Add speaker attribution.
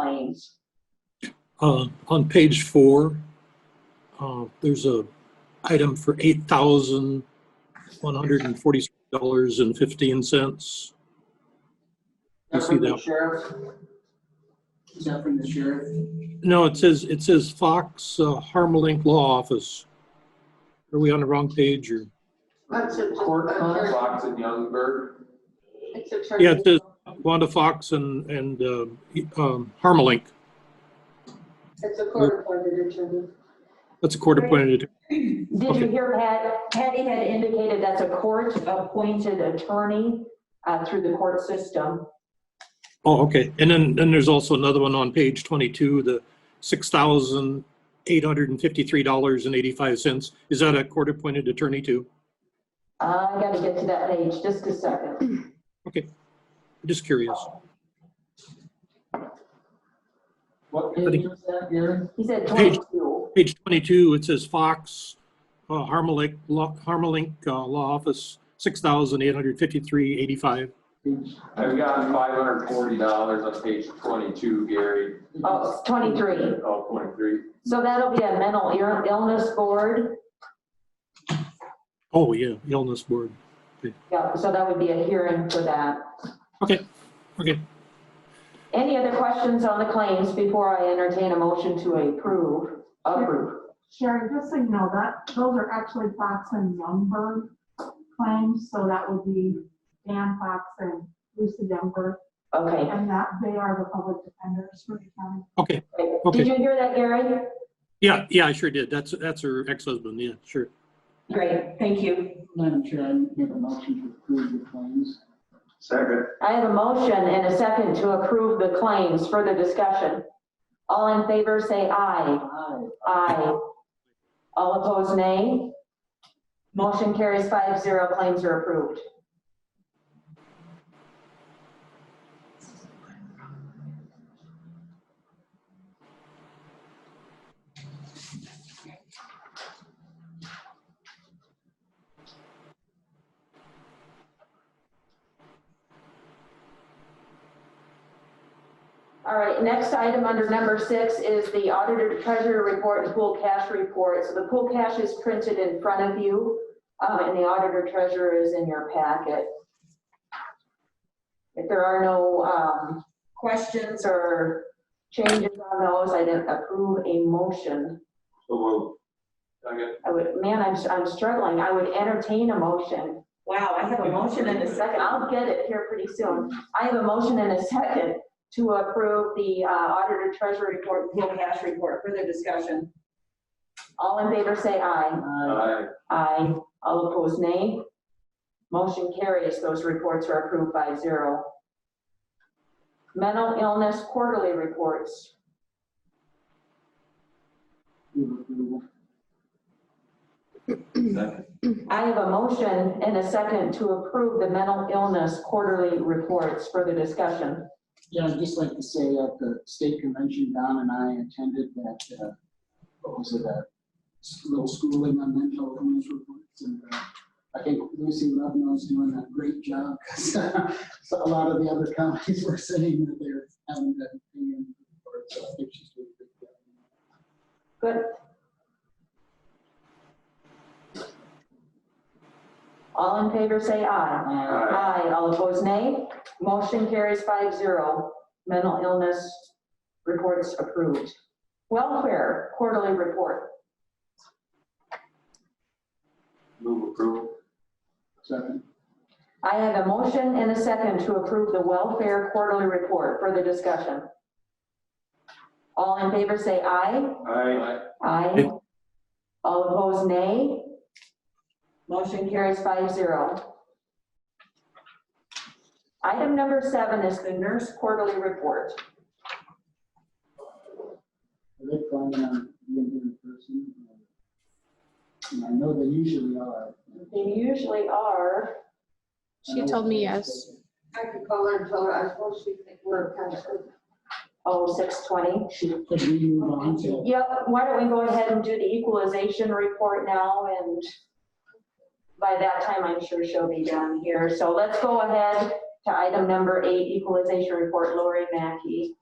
Speaker 1: claims.
Speaker 2: Uh, On page four, uh, there's a item for $8,146.15. You
Speaker 3: Is that
Speaker 2: see
Speaker 3: from the
Speaker 2: that?
Speaker 3: sheriff? Is that from the sheriff?
Speaker 2: No, it says, it says Fox uh, Harmelink Law Office. Are we on the wrong page or?
Speaker 1: That's a-
Speaker 3: Court
Speaker 1: that's a-
Speaker 3: costs?
Speaker 4: Fox and Youngberg.
Speaker 1: It's a-
Speaker 2: Yeah, it says Wanda Fox and, and uh, um, Harmelink.
Speaker 1: It's a court appointed attorney.
Speaker 2: That's a court appointed.
Speaker 1: Did you hear Pat? Patty had indicated that's a court appointed attorney uh, through the court system.
Speaker 2: Oh, okay. And then, then there's also another one on page 22, the $6,853.85. Is that a court appointed attorney too?
Speaker 1: Uh, I gotta get to that page, just a second.
Speaker 2: Just curious.
Speaker 3: What
Speaker 2: I
Speaker 3: page
Speaker 2: think-
Speaker 3: was that, Gary?
Speaker 1: He said
Speaker 2: Page-
Speaker 1: 22.
Speaker 2: Page 22, it says Fox, uh, Harmelink, Law- Harmelink uh, Law Office, $6,853.85.
Speaker 3: Page-
Speaker 4: I've got five hundred forty dollars on page twenty-two, Gary.
Speaker 1: Oh, it's 23.
Speaker 4: Oh, twenty-three.
Speaker 1: So that'll be a mental ill- illness board.
Speaker 2: Oh, yeah, illness board.
Speaker 1: Yeah, so that would be a hearing for that.
Speaker 2: Okay, okay.
Speaker 1: Any other questions on the claims before I entertain a motion to approve? Approve.
Speaker 5: Sherry, just so you know, that, those are actually Fox and Youngberg claims, so that would be Dan Fox and Lucy Youngberg,
Speaker 1: Okay.
Speaker 5: and that they are the public defenders for the county.
Speaker 2: Okay, Okay.
Speaker 1: Did you hear that, Gary?
Speaker 2: yeah, yeah, I sure did. That's, that's her ex-husband, yeah, sure.
Speaker 1: Great, thank you.
Speaker 3: Madam Chair, I make a motion to approve the claims.
Speaker 4: Second.
Speaker 1: I have a motion and a second to approve the claims. Further discussion. All in favor, say aye.
Speaker 3: Aye.
Speaker 1: Aye. All opposed, nay. Motion carries five zero. Claims are approved. All right, next item under number six is the auditor treasurer report and pool cash report. So the pool cash is printed in front of you, um, and the auditor treasurer is in your packet. If there are no um, questions or changes on those, I didn't approve a motion.
Speaker 4: So moved. Second.
Speaker 1: I would, man, I'm I'm struggling. I would entertain a motion. Wow, I have a motion and a second. I'll get it here pretty soon. I have a motion and a second to approve the uh, auditor treasurer report, and full cash report. Further discussion. All in favor, say aye.
Speaker 3: Aye.
Speaker 4: Aye.
Speaker 1: Aye. All opposed, nay. Motion carries. Those reports are approved by zero. Mental illness quarterly reports.
Speaker 3: Move approval.
Speaker 4: Second.
Speaker 1: I have a motion and a second to approve the mental illness quarterly reports. Further discussion.
Speaker 3: Yeah, I'd just like to say at the state convention, Don and I attended that, uh, what was it, a s- little schooling on mental illness reports. And uh, I think Lucy Levino's doing a great job. 'cause So a lot of the other counties were sitting with their, having that opinion. report, So I think she's doing a good job.
Speaker 1: Good. All in favor, say aye.
Speaker 4: Aye.
Speaker 1: Aye. All opposed, nay. Motion carries five zero. Mental illness reports approved. Welfare quarterly report.
Speaker 4: Move approval.
Speaker 3: Second.
Speaker 1: I have a motion and a second to approve the welfare quarterly report. Further discussion. All in favor, say aye.
Speaker 4: Aye.
Speaker 1: Aye. All opposed, nay. Motion carries five zero. Item number seven is the nurse quarterly report.
Speaker 3: Are they planning on being here in person? And I know they usually are.
Speaker 1: They usually are.
Speaker 6: She told me yes.
Speaker 7: I could call her and tell her, I suppose she think we're kind of.
Speaker 1: Oh, six twenty.
Speaker 3: Should, could we move on to?
Speaker 1: Yep, why don't we go ahead and do the equalization report now and by that time, I'm sure she'll be down here. So let's go ahead to item number eight, equalization report, Lori Mackey.